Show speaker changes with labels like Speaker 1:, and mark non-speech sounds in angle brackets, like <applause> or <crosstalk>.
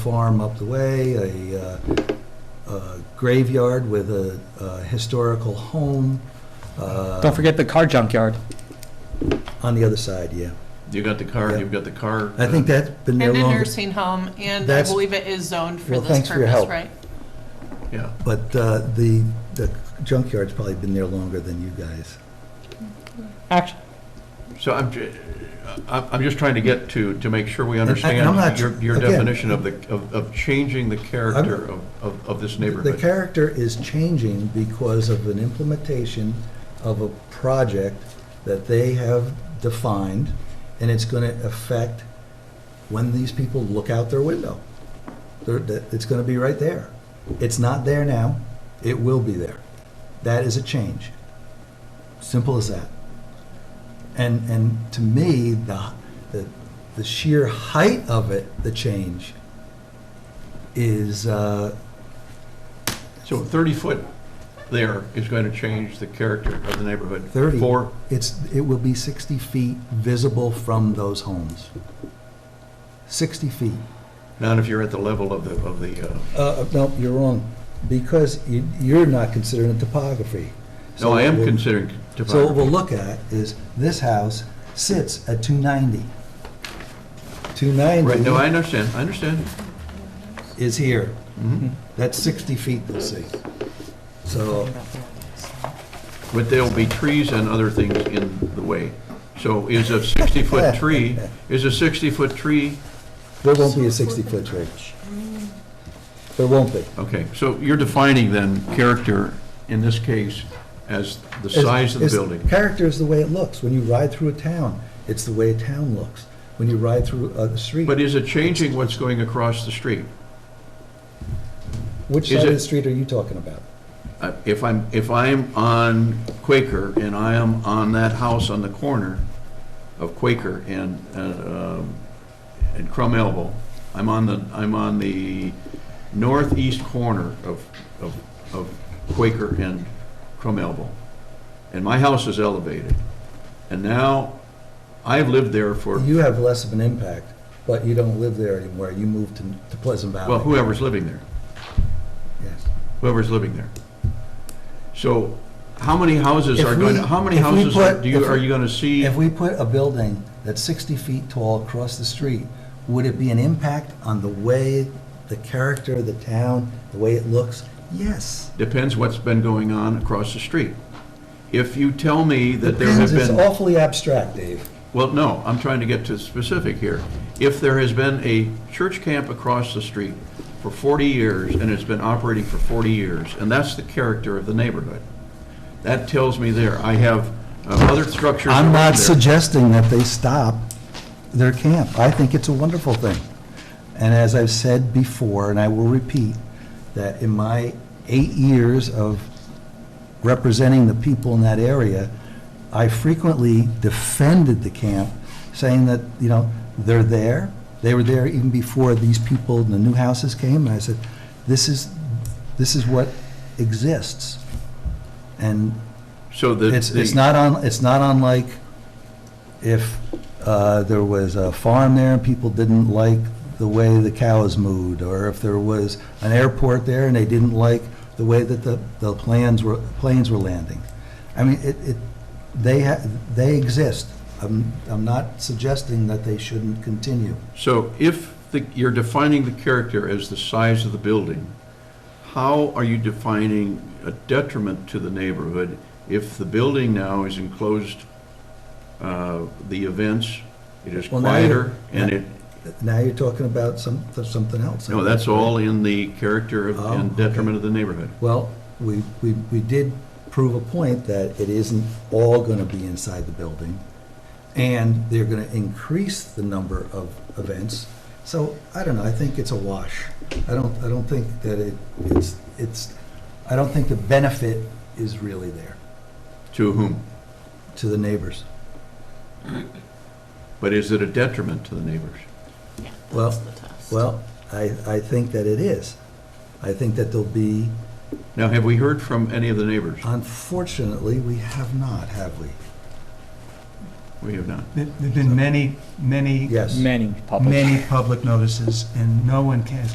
Speaker 1: farm up the way, a uh, a graveyard with a a historical home. uh,
Speaker 2: Don't forget the car junkyard.
Speaker 1: On the other side, yeah.
Speaker 3: You got the car,
Speaker 1: Yeah.
Speaker 3: you've got the car. uh,
Speaker 1: I think that's been there
Speaker 4: And a
Speaker 1: longer.
Speaker 4: nursing home, and I
Speaker 1: That's-
Speaker 4: believe it is zoned for
Speaker 1: Well,
Speaker 4: this
Speaker 1: thanks for your
Speaker 4: purpose,
Speaker 1: help.
Speaker 4: right?
Speaker 3: Yeah,
Speaker 1: But uh, the the junkyard's probably been there longer than you guys.
Speaker 2: Action.
Speaker 3: so I'm, ju- uh, I'm I'm just trying to get to, to make sure we
Speaker 1: I'm not-
Speaker 3: understand your, your
Speaker 1: again-
Speaker 3: definition of the, of, of changing the character of, of, of this
Speaker 1: The
Speaker 3: neighborhood.
Speaker 1: character is changing because of an implementation of a project that they have defined, and it's going to affect when these people look out their window. They're- that- It's going to be right there. It's not there now, it will be there. That is a change. Simple as that. And, and to me, the, the, the sheer height of it, the change, is, uh,
Speaker 3: So 30-foot there is going to change the character of the neighborhood.
Speaker 1: 30.
Speaker 3: For,
Speaker 1: It's, it will be 60 feet visible from those homes. 60 feet.
Speaker 3: not if you're at the level of the, of the, uh,
Speaker 1: Uh, no, you're wrong, because you- you're not considering topography.
Speaker 3: no, I
Speaker 1: So
Speaker 3: am
Speaker 1: we'll-
Speaker 3: considering
Speaker 1: So what
Speaker 3: topography.
Speaker 1: we'll look at is, this house sits at 290.
Speaker 3: Right, no, I
Speaker 1: 290
Speaker 3: understand, I understand.
Speaker 1: is here.
Speaker 3: Mhm.
Speaker 1: That's 60 feet, they'll see. So,
Speaker 3: But there'll be trees and other things in the way. So is
Speaker 1: <laughs>
Speaker 3: a 60-foot tree, is a 60-foot tree
Speaker 1: there won't be a 60-foot tree. There won't be.
Speaker 3: Okay, so you're defining then character, in this case, as the size of the
Speaker 1: It's-
Speaker 3: building.
Speaker 1: Character is the way it looks. When you ride through a town, it's the way a town looks. When you ride through a street,
Speaker 3: But is it changing what's going across the street?
Speaker 1: which
Speaker 3: is
Speaker 1: side of
Speaker 3: it-
Speaker 1: the street are you talking about?
Speaker 3: Uh, If I'm, if I'm on Quaker and I am on that house on the corner of Quaker and, uh, um, and Crum Elbow, I'm on the, I'm on the northeast corner of, of, of Quaker and Crum Elbow. And my house is elevated. And now, I've lived there for
Speaker 1: You have less of an impact, but you don't live there anymore. You moved to to Pleasant Valley.
Speaker 3: Well, whoever's living there,
Speaker 1: Yes.
Speaker 3: whoever's living there. So how many houses
Speaker 1: If
Speaker 3: are going,
Speaker 1: we-
Speaker 3: to? how many
Speaker 1: if we
Speaker 3: houses are-
Speaker 1: put-
Speaker 3: do you,
Speaker 1: if-
Speaker 3: are you going to see?
Speaker 1: If we put a building that's 60 feet tall across the street, would it be an impact on the way, the character of the town, the way it looks? Yes.
Speaker 3: Depends what's been going on across the street. If you tell me that there have
Speaker 1: Depends. It's
Speaker 3: been,
Speaker 1: awfully abstract, Dave.
Speaker 3: well, no, I'm trying to get to specific here. If there has been a church camp across the street for 40 years and it's been operating for 40 years, and that's the character of the neighborhood, that tells me there. I have uh, other structures.
Speaker 1: I'm
Speaker 3: around
Speaker 1: not
Speaker 3: there.
Speaker 1: suggesting that they stop their camp. I think it's a wonderful thing. And as I've said before, and I will repeat, that in my eight years of representing the people in that area, I frequently defended the camp, saying that, you know, they're there, they were there even before these people in the new houses came, and I said, this is, this is what exists. And
Speaker 3: So the.
Speaker 1: it's, it's
Speaker 3: the-
Speaker 1: not on, it's not unlike if uh, there was a farm there and people didn't like the way the cows moved, or if there was an airport there and they didn't like the way that the, the plans were, planes were landing. I mean, it, it, they, ha- they exist. I'm, I'm not suggesting that they shouldn't continue.
Speaker 3: So if the- you're defining the character as the size of the building, how are you defining a detriment to the neighborhood if the building now is enclosed, uh, the events, it is
Speaker 1: Well, now you-
Speaker 3: quieter, and it,
Speaker 1: Now you're talking about some, something else.
Speaker 3: no, that's all in the character of-
Speaker 1: Oh,
Speaker 3: and detriment of the neighborhood.
Speaker 1: Well, we, we, we did prove a point that it isn't all gonna be inside the building, and they're gonna increase the number of events. So, I don't know, I think it's a wash. I don't, I don't think that it, it's, it's, I don't think the benefit is really there
Speaker 3: To whom?
Speaker 1: to the neighbors.
Speaker 3: But is it a detriment to the neighbors?
Speaker 1: Well,
Speaker 4: That's the test.
Speaker 1: Well, I, I think that it is. I think that there'll be,
Speaker 3: Now, have we heard from any of the neighbors?
Speaker 1: Uh, unfortunately, we have not, have we?
Speaker 3: We have not.
Speaker 5: There- There've been many, many,
Speaker 1: Yes.
Speaker 2: Many. public.
Speaker 5: many public notices, and no one has